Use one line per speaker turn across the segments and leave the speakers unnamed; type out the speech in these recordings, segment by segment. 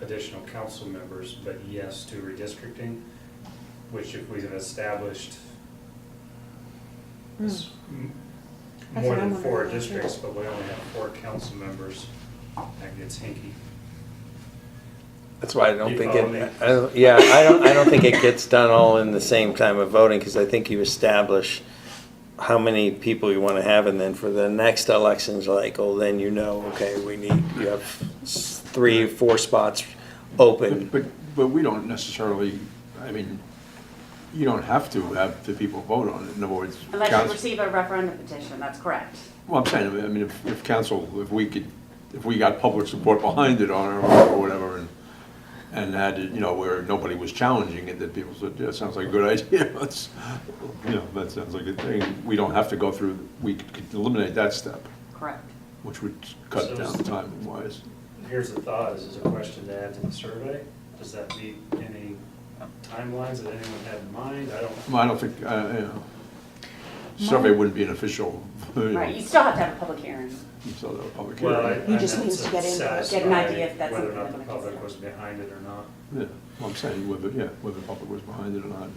additional council members, but yes to redistricting, which if we have established s- m-
Hmm. That's
more
what I'm
than four
wondering about, too.
districts, but we only have four council members, that gets hinky.
That's why I don't
You
think
follow me?
it, I don't- yeah, I don't, I don't think it gets done all in the same time of voting, because I think you establish how many people you want to have, and then for the next elections, like, oh, then you know, okay, we need, you have s- three, four spots open.
But, but, but we don't necessarily, I mean, you don't have to have the people vote on it, in other words.
Unless you
council-
receive a referendum petition, that's correct.
Well, I'm saying, I mean, if, if council, if we could, if we got public support behind it on it or whatever, and, and had, it, you know, where nobody was challenging it, that people said, yeah, sounds like a good idea, that's, you know, that sounds like a thing, we don't have to go through, we could eliminate that step,
Correct.
which would cut
So-
down time wise.
Here's the thought, is this a question to add to the survey? Does that meet any timelines that anyone had in mind? I don't.
Well, I don't think, uh, you know, survey
Mine-
wouldn't be an official, you know,
Right, you still have to have a public hearing.
so the public
Well, I-
hearing.
I
You just
meant
need to get in-
get an idea if that's
satisfy Whether or
something
not the
that
public
makes
was
sense.
behind it or not.
Yeah, well, I'm saying whether, yeah, whether the public was behind it or not.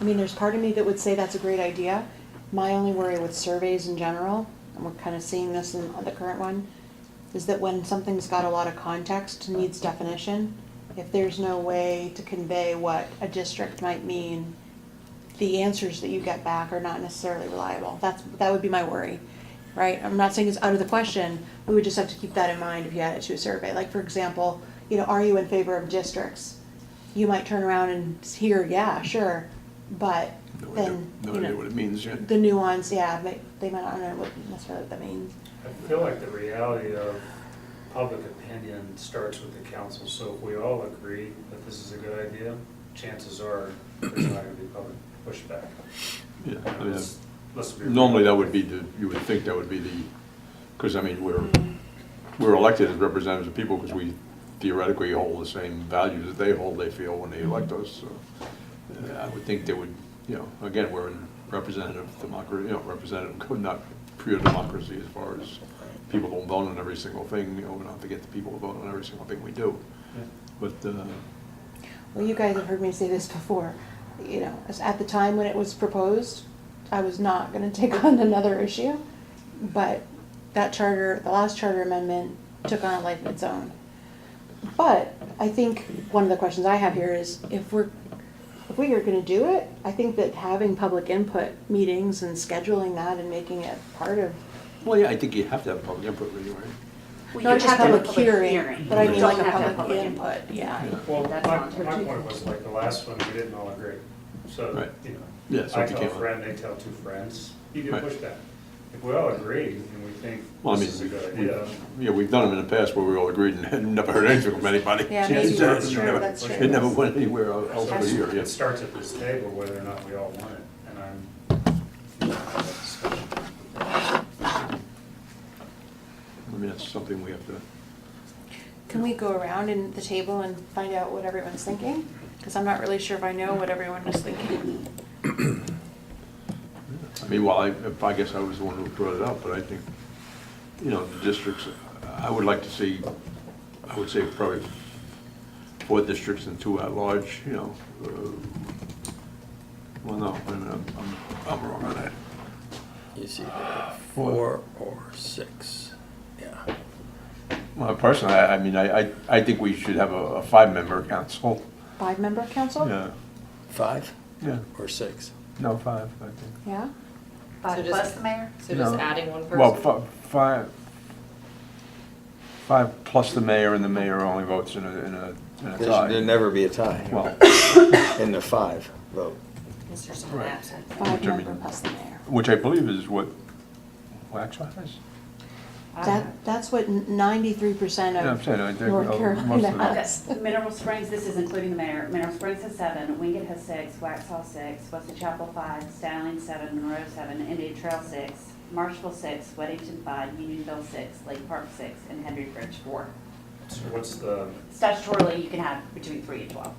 I mean, there's part of me that would say that's a great idea. My only worry with surveys in general, and we're kind of seeing this in the current one, is that when something's got a lot of context, needs definition, if there's no way to convey what a district might mean, the answers that you get back are not necessarily reliable. That's, that would be my worry, right? I'm not saying it's out of the question, we would just have to keep that in mind if you add it to a survey. Like, for example, you know, are you in favor of districts? You might turn around and hear, yeah, sure, but
No idea,
then,
no
you
idea what
know,
it means yet.
the nuance, yeah, they, they might not know what necessarily that means.
I feel like the reality of public opinion starts with the council, so if we all agree that this is a good idea, chances are there's not gonna be public pushback.
Yeah, I mean,
Let's- let's be real.
normally that would be the, you would think that would be the, because I mean, we're, we're elected as representatives of people because we theoretically hold the same values that they hold, they feel when they elect us, so. uh, I would think they would, you know, again, we're in representative democracy, you know, representative, could not pure democracy as far as people don't vote on every single thing, you know, we don't have to get the people to vote on every single thing we do. But, uh,
Well, you guys have heard me say this before, you know, as- at the time when it was proposed, I was not gonna take on another issue, but that charter, the last charter amendment took on a life of its own. But I think one of the questions I have here is if we're, if we are gonna do it, I think that having public input meetings and scheduling that and making it part of
well, yeah, I think you have to have public input anyway.
Well, you
Not just
have to have a
public hearing, but I
You
mean
don't
like a
have to have
public input, yeah.
Well, my,
That's not-
my point was like the last one, we didn't all agree, so,
Right.
you know.
Yeah, so
I
it
tell a
became a-
friend, they tell two friends, you get
Right.
pushback. If we all agree and we think
Well, I
this
mean,
is a good
we've,
idea,
yeah, we've done them in the past where we all agreed and had never heard anything from anybody.
Yeah,
It
maybe
never-
that's
it
true,
never-
that's
It
true.
never went anywhere el- else over
It's-
here,
It
yes.
starts at this table whether or not we all want it, and I'm.
I mean, that's something we have to,
Can we go around in the table and find out what everyone's thinking? Because I'm not really sure if I know what everyone was thinking.
I mean, well, I, if- I guess I was the one who brought it up, but I think, you know, the districts, I would like to see, I would say probably four districts and two at-large, you know. uh, Well, no, wait a minute, I'm, I'm- I'm wrong on that.
You see, four or six, yeah.
Well, personally, I, I mean, I, I, I think we should have a, a five-member council.
Five-member council?
Yeah,
Five
yeah,
or six?
no, five, I think.
Yeah?
Five
So just-
plus the mayor?
So just
No.
adding one person?
Well, fi- five, five plus the mayor, and the mayor only votes in a, in a, in a tie.
There'd never be a tie
Well,
in the five vote.
Is there someone
Right.
absent?
Five-member plus the mayor.
which I believe is what Waxaw has.
Uh,
That, that's what ninety-three percent
Yeah, I'm
of
saying, I think uh,
North
most of
Carolina
the-
has.
Okay, Mineral Springs, this is including the mayor, Mineral Springs has seven, Wingate has six, Waxhaw six, Weston Chapel five, Styling seven, Monroe seven, Indian Trail six, Marshville six, Weddington five, Unionville six, Lake Park six, and Henry Bridge four.
So what's the,
Statutorily, you can have between three and twelve.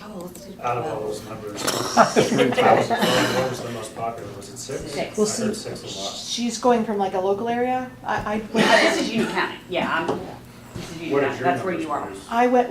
Oh, let's do
out of all
twelve.
those numbers? I was wondering What was the most popular, was it six?
Six.
Well,
I heard
see,
six a lot.
she's going from like a local area, I, I.
Well, This is Union County, yeah, I'm, this is you,
What is
that-
your
that's where
numbers,
you are.
Bruce?
I went,